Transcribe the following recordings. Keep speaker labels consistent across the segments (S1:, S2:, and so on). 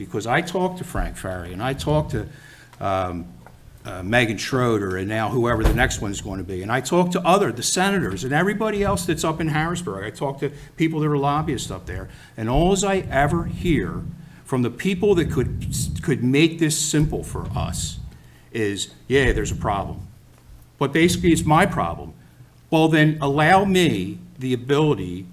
S1: Because I talked to Frank Ferry, and I talked to um, uh, Megan Schroeder, and now whoever the next one's going to be. And I talked to other, the senators, and everybody else that's up in Harrisburg. I talked to people that are lobbyists up there. And alls I ever hear from the people that could, could make this simple for us is, yeah, there's a problem. But basically, it's my problem. Well, then allow me the ability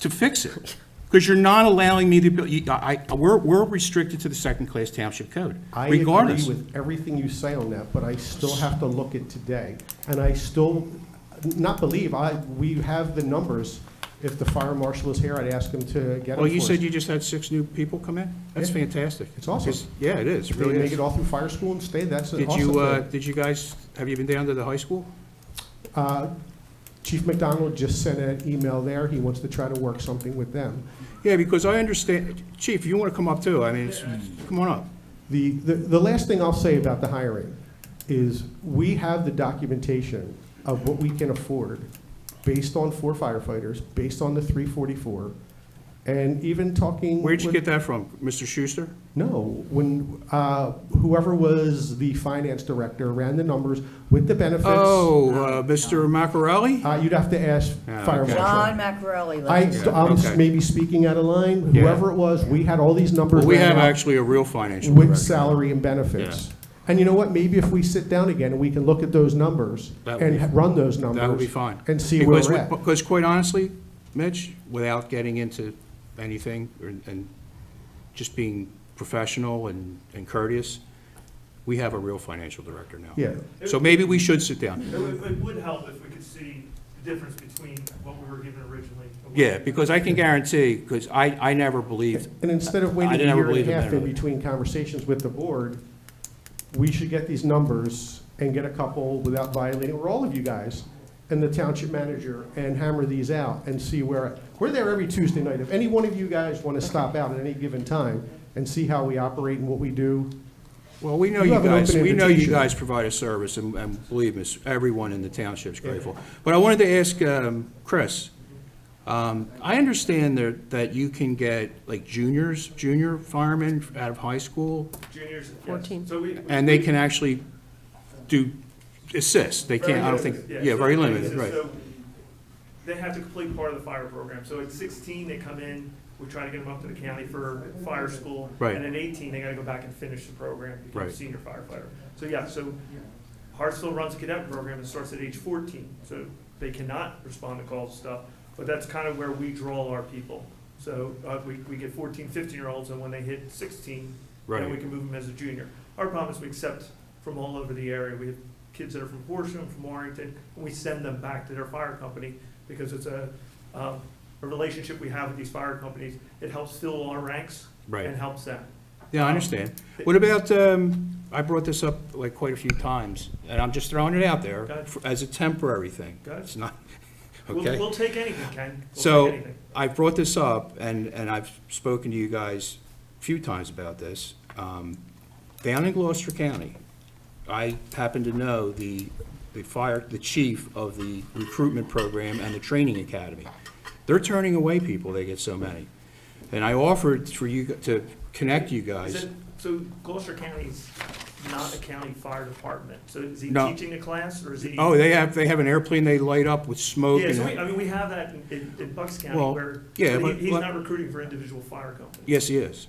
S1: to fix it. Because you're not allowing me the, abil- you- I, I- we're, we're restricted to the second-class township code,
S2: I agree
S1: regardless.
S2: with everything you say on that, but I still have to look at today. And I still not believe, I, we have the numbers. If the fire marshal is here, I'd ask him to get them
S1: Well, you
S2: for us.
S1: said you just had six new people come in? That's
S2: Yeah.
S1: fantastic.
S2: It's awesome.
S1: Because- Yeah, it is, it
S2: If they
S1: really is.
S2: make it all through fire school and stay, that's an
S1: Did
S2: awesome
S1: you, uh,
S2: thing.
S1: did you guys, have you been down to the high school?
S2: Uh, Chief McDonald just sent an email there. He wants to try to work something with them.
S1: Yeah, because I understand, Chief, you want to come up too, I mean, it's- come on up.
S2: The, the, the last thing I'll say about the hiring is we have the documentation of what we can afford based on four firefighters, based on the three forty-four, and even talking.
S1: Where'd you
S2: with-
S1: get that from? Mr. Schuster?
S2: No, when, uh, whoever was the finance director ran the numbers with the benefits.
S1: Oh, uh, Mr. Macarelli?
S2: Uh, you'd have to ask
S1: Yeah,
S2: fire
S1: okay.
S2: marshal.
S3: John Macarelli,
S2: I,
S3: ladies and gentlemen.
S2: I'm
S1: okay.
S2: maybe speaking out of line,
S1: Yeah.
S2: whoever it was, we had all these numbers.
S1: Well, we
S2: ran
S1: have
S2: out.
S1: actually a real financial
S2: with
S1: director.
S2: salary and benefits. And you know what, maybe if we sit down again and we can look at those numbers
S1: That would
S2: and
S1: be-
S2: ha- run those
S1: That would be
S2: numbers
S1: fine.
S2: and see where
S1: Because
S2: we're
S1: we-
S2: at.
S1: Because quite honestly, Mitch, without getting into anything, or- and just being professional and and courteous, we have a real financial director now.
S2: Yeah,
S1: So maybe we should sit down.
S4: It would, it would help if we could see the difference between what we were given originally. and what-
S1: Yeah, because I can guarantee, because I, I never believed,
S2: and instead of
S1: I
S2: waiting a
S1: never
S2: year and
S1: believed
S2: a
S1: in
S2: half
S1: that.
S2: in between conversations with the board, we should get these numbers and get a couple without violating, or all of you guys, and the township manager, and hammer these out and see where, we're there every Tuesday night. If any one of you guys want to stop out at any given time and see how we operate and what we do,
S1: well, we know
S2: You
S1: you
S2: have an
S1: guys,
S2: open
S1: we know you
S2: invitation.
S1: guys provide a service, and and believe me, everyone in the township's grateful. But I wanted to ask um, Chris, um, I understand that, that you can get like juniors, junior firemen out of high school
S4: Juniors. yes.
S3: 14.
S4: So we.
S1: And they can actually do, assist, they can't, I don't think,
S4: Very limited,
S1: yeah,
S4: so
S1: very
S4: the thing
S1: limited,
S4: is,
S1: right.
S4: so They have to complete part of the fire program. So at sixteen, they come in, we try to get them up to the county for fire school.
S1: Right.
S4: And at eighteen, they gotta go back and finish the program, become a
S1: Right.
S4: senior firefighter. So, yeah, so Hartsville runs a cadet program that starts at age fourteen, so they cannot respond to calls and stuff. But that's kind of where we draw our people. So, uh, we, we get 14, 15 year olds, and when they hit sixteen, then we
S1: Right,
S4: can move them as a junior. Our problem is we accept from all over the area. We have kids that are from Horsham, from Warrington, and we send them back to their fire company because it's a, um, a relationship we have with these fire companies. It helps fill our ranks and
S1: right.
S4: helps them.
S1: Yeah, I understand. What about, um, I brought this up like quite a few times, and I'm just throwing it out there
S4: Got it.
S1: for- as a temporary thing.
S4: Got it.
S1: It's not,
S4: We'll,
S1: okay?
S4: we'll take anything, Ken. We'll
S1: So-
S4: take anything.
S1: I've brought this up, and, and I've spoken to you guys a few times about this. Um, Down in Gloucester County, I happen to know the, the fire, the chief of the recruitment program and the training academy. They're turning away people, they get so many. And I offered for you, g- to connect you
S4: Is
S1: guys.
S4: it, so Gloucester County's not a county fire department. So is he
S1: No.
S4: teaching a class or is he?
S1: Oh, they have, they have an airplane they light up with smoke
S4: Yeah, so we, I
S1: and,
S4: mean, we have that in- in, in Bucks County
S1: Well,
S4: where,
S1: yeah,
S4: but
S1: but-
S4: he, he's
S1: but-
S4: not recruiting for individual fire companies.
S1: yes, he is.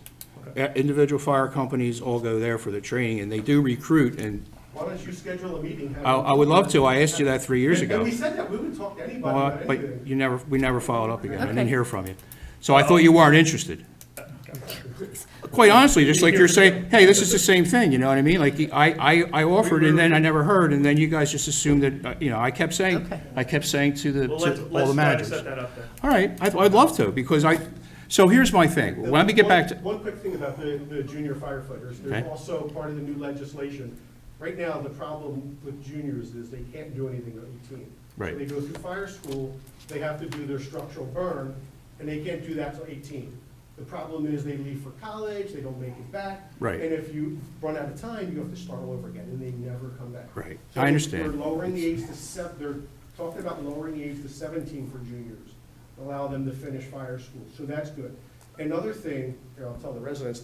S1: Uh, Individual fire companies all go there for the training, and they do recruit, and
S2: why don't you schedule a meeting? have
S1: I,
S2: them
S1: I would
S2: come
S1: love
S2: in.
S1: to, I asked you that three years
S2: And-
S1: ago.
S2: And we said that, we would talk to anybody
S1: Well,
S2: about
S1: uh, But
S2: anything.
S1: you never, we never followed up again. I didn't
S3: Okay.
S1: hear from you. So I thought you weren't interested. Quite honestly, just like you're saying, hey, this is the same thing, you know what I mean? Like, I, I, I offered and then I never heard, and then you guys just assumed that, uh, you know, I kept saying,
S3: Okay.
S1: I kept saying to the,
S4: Well,
S1: to
S4: let's,
S1: all the
S4: let's try to
S1: managers.
S4: set that up then.
S1: All right, I'd, I'd love to, because I, so here's my thing. Let me get back to,
S2: One one quick thing about the, the junior firefighters,
S1: Okay.
S2: there's also part of the new legislation. Right now, the problem with juniors is they can't do anything at eighteen.
S1: Right.
S2: They go through fire school, they have to do their structural burn, and they can't do that till eighteen. The problem is they leave for college, they don't make it back.
S1: Right.
S2: And if you run out of time, you have to start all over again, and they never come back.
S1: Right.
S2: So
S1: I
S2: they-
S1: understand.
S2: They're lowering the age to sev, they're talking about lowering the age to seventeen for juniors, allow them to finish fire school, so that's good. Another thing, here, I'll tell the residents,